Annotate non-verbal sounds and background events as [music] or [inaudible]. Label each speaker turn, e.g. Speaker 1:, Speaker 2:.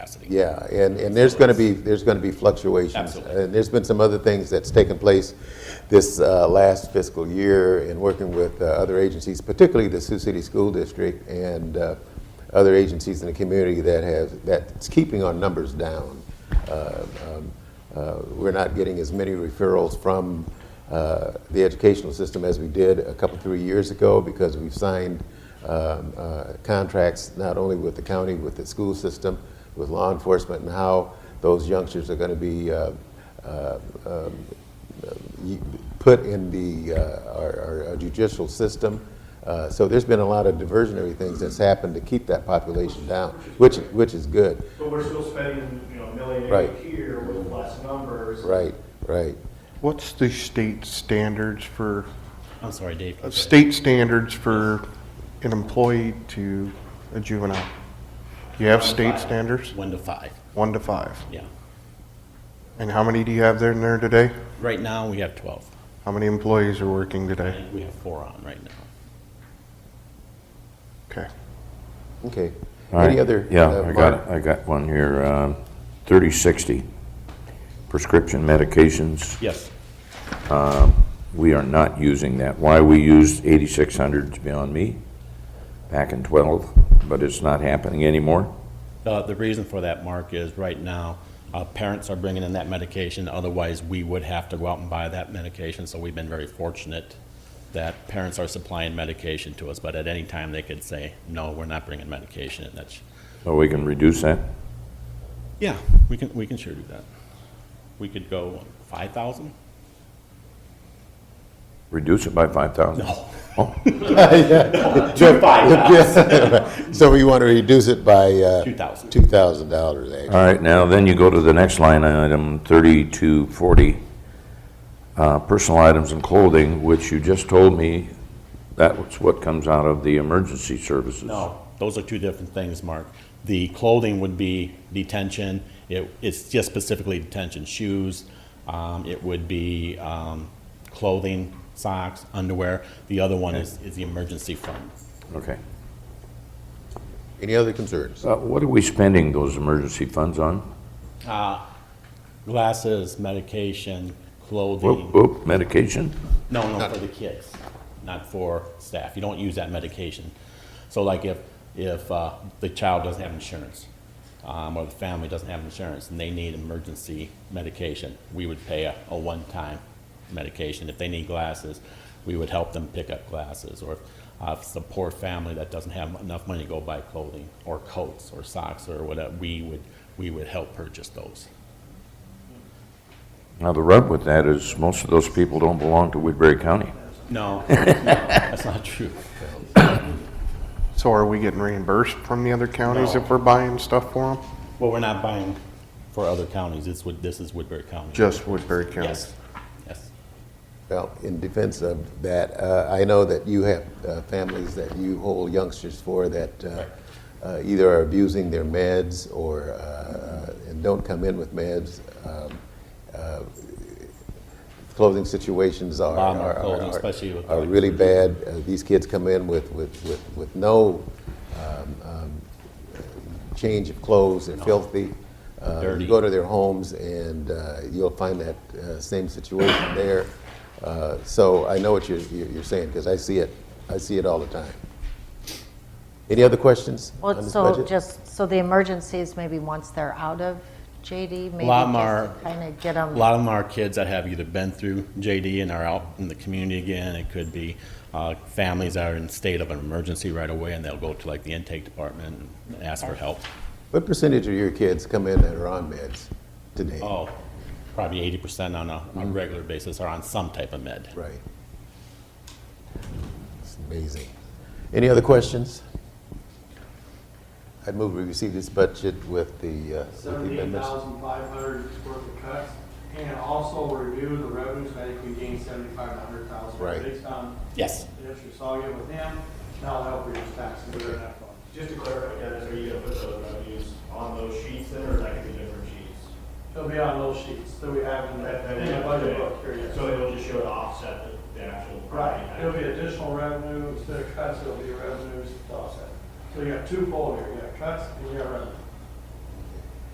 Speaker 1: capacity.
Speaker 2: Yeah, and, and there's going to be, there's going to be fluctuations.
Speaker 1: Absolutely.
Speaker 2: And there's been some other things that's taken place this uh, last fiscal year in working with uh, other agencies, particularly the Sioux City School District and uh, other agencies in the community that have, that's keeping our numbers down. Uh, um, uh, We're not getting as many referrals from uh, the educational system as we did a couple, three years ago because we've signed um, uh, contracts not only with the county, with the school system, with law enforcement, and how those youngsters are going to be uh, uh, um, y- put in the, uh, our our judicial system. Uh, So there's been a lot of diversionary things that's happened to keep that population down, which, which is good.
Speaker 3: But we're still spending, you know, a million
Speaker 2: Right.
Speaker 3: a year with less numbers.
Speaker 2: Right, right.
Speaker 4: What's the state standards for,
Speaker 1: I'm sorry, Dave.
Speaker 4: uh, state standards for an employee to a juvenile? Do you have state standards?
Speaker 1: One to five,
Speaker 4: One to five.
Speaker 1: yeah.
Speaker 4: And how many do you have there in there today?
Speaker 1: Right now, we have 12.
Speaker 4: How many employees are working
Speaker 1: I
Speaker 4: today?
Speaker 1: think we have four on right now.
Speaker 4: Okay.
Speaker 2: Okay.
Speaker 5: All right.
Speaker 2: Any other? uh,
Speaker 5: Yeah, I
Speaker 2: Mark?
Speaker 5: got, I got one here. um, 3060, prescription medications.
Speaker 1: Yes.
Speaker 5: We are not using that. Why we used 8600 is beyond me, back in 12, but it's not happening anymore.
Speaker 1: Uh, The reason for that, Mark, is right now, uh, parents are bringing in that medication, otherwise we would have to go out and buy that medication, so we've been very fortunate that parents are supplying medication to us, but at any time they could say, no, we're not bringing medication, and that's,
Speaker 5: So we can reduce that.
Speaker 1: yeah, we can, we can sure do that. We could go 5,000?
Speaker 5: Reduce it by 5,000?
Speaker 1: No.
Speaker 2: [laughs]
Speaker 1: [laughs]
Speaker 2: Yeah. [laughs] So we want to reduce it by? uh,
Speaker 1: 2,000.
Speaker 2: $2,000, actually.
Speaker 5: All right, now then you go to the next line item, 3240, uh, personal items and clothing, which you just told me that's what comes out of the emergency services.
Speaker 1: No, those are two different things, Mark. The clothing would be detention, it, it's just specifically detention, shoes, um, it would be, um, clothing, socks, underwear. The other one is, is the emergency fund.
Speaker 5: Okay.
Speaker 2: Any other concerns?
Speaker 5: Uh, What are we spending those emergency funds on?
Speaker 1: Glasses, medication,
Speaker 5: Whoop,
Speaker 1: clothing,
Speaker 5: whoop, medication?
Speaker 1: no, no, for the kids, not for staff. You don't use that medication. So like if, if, uh, the child doesn't have insurance, um, or the family doesn't have insurance and they need emergency medication, we would pay a, a one-time medication. If they need glasses, we would help them pick up glasses. Or if, uh, if it's a poor family that doesn't have enough money to go buy clothing or coats or socks or whatever, we would, we would help purchase those.
Speaker 5: Now, the rub with that is most of those people don't belong to Woodbury County.
Speaker 1: No, [laughs] no, that's not true.
Speaker 4: So are we getting reimbursed from the other counties if we're buying stuff for them?
Speaker 1: Well, we're not buying for other counties, it's, Wood- this is Woodbury County.
Speaker 4: Just Woodbury County?
Speaker 1: Yes, yes.
Speaker 2: Well, in defense of that, uh, I know that you have uh, families that you hold youngsters for that uh, uh, either are abusing their meds or, uh, and don't come in with meds. Um, uh, Clothing situations are,
Speaker 1: Bomber
Speaker 2: are-
Speaker 1: clothing,
Speaker 2: are-
Speaker 1: especially with,
Speaker 2: are
Speaker 1: like,
Speaker 2: really bad. Uh, These kids come in with, with, with with no um, um, change of clothes, they're filthy. Uh, you
Speaker 1: Dirty.
Speaker 2: Go to their homes and uh, you'll find that uh, same situation there. Uh, So I know what you're, you're you're saying, because I see it, I see it all the time. Any other questions on
Speaker 6: Well,
Speaker 2: this
Speaker 6: so
Speaker 2: budget?
Speaker 6: just, so the emergencies, maybe once they're out of JD, maybe
Speaker 1: lot
Speaker 6: just
Speaker 1: more-
Speaker 6: kind of get
Speaker 1: A
Speaker 6: them.
Speaker 1: lot of them are kids that have either been through JD and are out in the community again. It could be uh, families that are in state of an emergency right away, and they'll go to like the intake department and ask for help.
Speaker 2: What percentage of your kids come in that are on meds today?
Speaker 1: Oh, probably 80% on a a regular basis are on some type of med.
Speaker 2: Right. It's amazing. Any other questions? I'd move we receive this budget with the, uh, with the
Speaker 3: Seventeen
Speaker 2: amendments.
Speaker 3: thousand five hundred is worth of cuts, and also review the revenues, I think we gained seventy-five hundred thousand.
Speaker 2: Right.
Speaker 3: Based on
Speaker 1: Yes.
Speaker 3: the issue saw you with them, now that'll reduce taxes that are in that fund.
Speaker 7: Just to clarify, Dennis, are you gonna put those revenues on those sheets then, or is that gonna be different sheets?
Speaker 3: It'll be on those sheets that we have in
Speaker 7: That-
Speaker 3: the,
Speaker 7: that
Speaker 3: in the
Speaker 7: is-
Speaker 3: budget book here, yes.
Speaker 7: So it'll just show it offset the, the actual.
Speaker 3: Right, it'll be
Speaker 7: property tax.
Speaker 3: additional revenue, instead of cuts, it'll be revenues to offset. So you got two fold here, you got cuts and you got revenues.